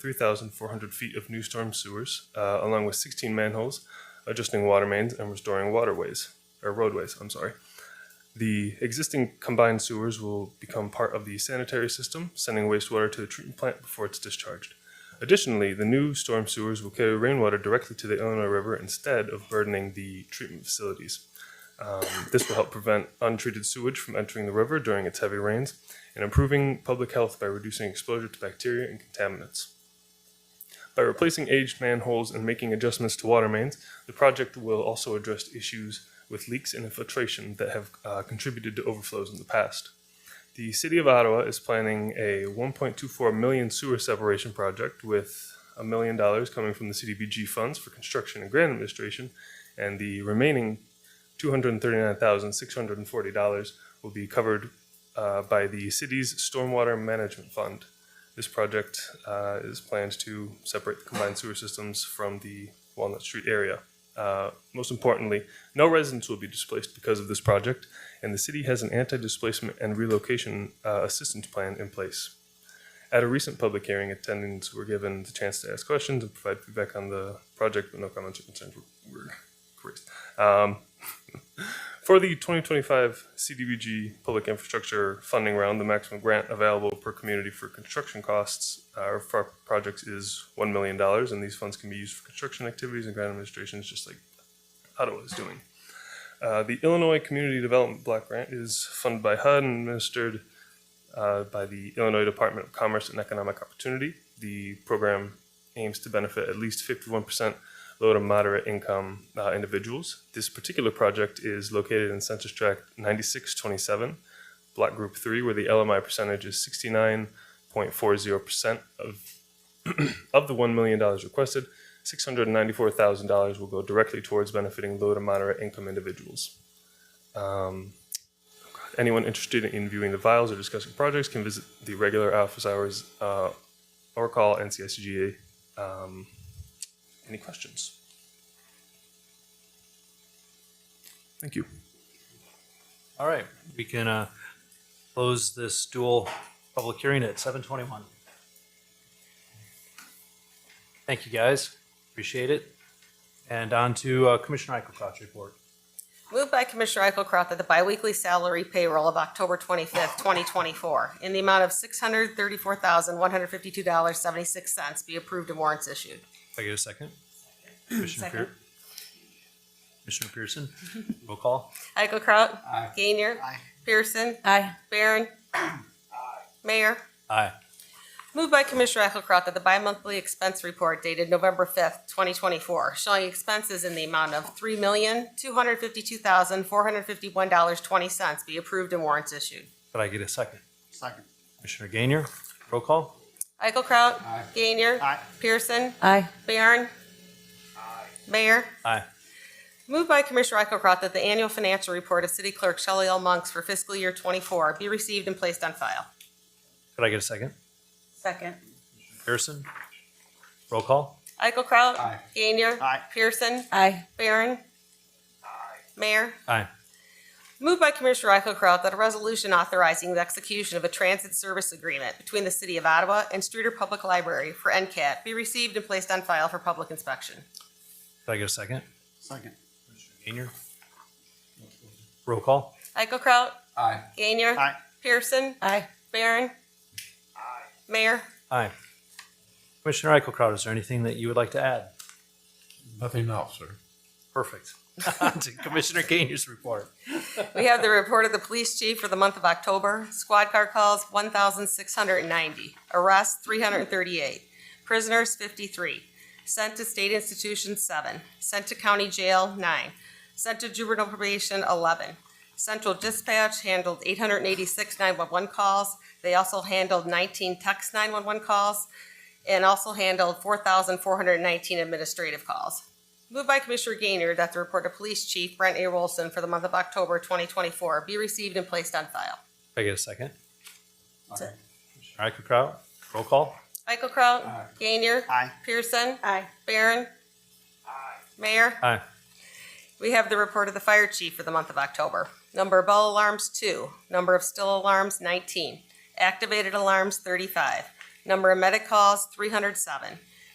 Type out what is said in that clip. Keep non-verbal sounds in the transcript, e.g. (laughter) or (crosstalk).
3,400 feet of new storm sewers, uh, along with 16 manholes, adjusting water mains and restoring waterways, or roadways, I'm sorry. The existing combined sewers will become part of the sanitary system, sending wastewater to the treatment plant before it's discharged. Additionally, the new storm sewers will carry rainwater directly to the Illinois River instead of burdening the treatment facilities. Um, this will help prevent untreated sewage from entering the river during its heavy rains and improving public health by reducing exposure to bacteria and contaminants. By replacing aged manholes and making adjustments to water mains, the project will also address issues with leaks and infiltration that have uh, contributed to overflows in the past. The City of Ottawa is planning a 1.24 million sewer separation project with a million dollars coming from the CDBG funds for construction and grant administration, and the remaining $239,640 will be covered uh, by the city's stormwater management fund. This project uh, is planned to separate the combined sewer systems from the Walnut Street area. Uh, most importantly, no residents will be displaced because of this project, and the city has an anti displacement and relocation uh, assistance plan in place. At a recent public hearing, attendants were given the chance to ask questions and provide feedback on the project, but no comments or concerns were, were raised. Um, for the 2025 CDBG Public Infrastructure Funding Round, the maximum grant available per community for construction costs uh, for projects is $1 million, and these funds can be used for construction activities and grant administrations, just like Ottawa is doing. Uh, the Illinois Community Development Block Grant is funded by HUD and administered uh, by the Illinois Department of Commerce and Economic Opportunity. The program aims to benefit at least 51% low to moderate income uh, individuals. This particular project is located in Census Tract 9627, Block Group 3, where the LMI percentage is 69.40% of, (clears throat) of the $1 million requested. $694,000 will go directly towards benefiting low to moderate income individuals. Um, anyone interested in viewing the files or discussing projects can visit the regular office hours uh, or call NCSGA. Um, any questions? Thank you. All right, we can uh, close this dual public hearing at seven twenty-one. Thank you, guys. Appreciate it. And on to uh, Commissioner Eichelkraut's report. Moved by Commissioner Eichelkraut that the biweekly salary payroll of October twenty-fifth, twenty twenty-four, in the amount of six hundred thirty-four thousand, one hundred fifty-two dollars, seventy-six cents be approved and warrants issued. If I get a second? Commissioner Second. Pearson? Commissioner Pearson, roll call. Eichelkraut. Aye. Gainier. Pearson. Aye. Barron. Mayor. Aye. Moved by Commissioner Eichelkraut that the bi-monthly expense report dated November fifth, twenty twenty-four, showing expenses in the amount of three million, two hundred fifty-two thousand, four hundred fifty-one dollars, twenty cents be approved and warrants issued. Could I get a second? Second. Commissioner Gainier, roll call. Eichelkraut. Gainier. Aye. Pearson. Aye. Barron. Mayor. Aye. Moved by Commissioner Eichelkraut that the annual financial report of City Clerk Shelley L. Monks for fiscal year twenty-four be received and placed on file. Could I get a second? Second. Pearson, roll call. Eichelkraut. Aye. Gainier. Aye. Pearson. Aye. Barron. Mayor. Aye. Moved by Commissioner Eichelkraut that a resolution authorizing the execution of a transit service agreement between the City of Ottawa and Streeter Public Library for NCAT be received and placed on file for public inspection. Could I get a second? Second. Gainier? Roll call. Eichelkraut. Aye. Gainier. Aye. Pearson. Aye. Barron. Mayor. Aye. Commissioner Eichelkraut, is there anything that you would like to add? Nothing else, sir. Perfect. (laughs) To Commissioner Gainey's report. We have the report of the police chief for the month of October. Squad car calls, one thousand six hundred and ninety. Arrests, three hundred and thirty-eight. Prisoners, fifty-three. Sent to state institutions, seven. Sent to county jail, nine. Sent to juvenile probation, eleven. Central dispatch handled eight hundred and eighty-six nine-one-one calls. They also handled nineteen text nine-one-one calls and also handled four thousand four hundred and nineteen administrative calls. Moved by Commissioner Gainer that the report of Police Chief Brent A. Wilson for the month of October 2024 be received and placed on file. Can I get a second? Aye. Commissioner Eichelkraut, roll call. Eichelkraut. Aye. Gainer. Aye. Pearson. Aye. Barron. Mayor. Aye. We have the report of the Fire Chief for the month of October. Number of bell alarms, two. Number of still alarms, 19. Activated alarms, 35. Number of medic calls, three hundred seven.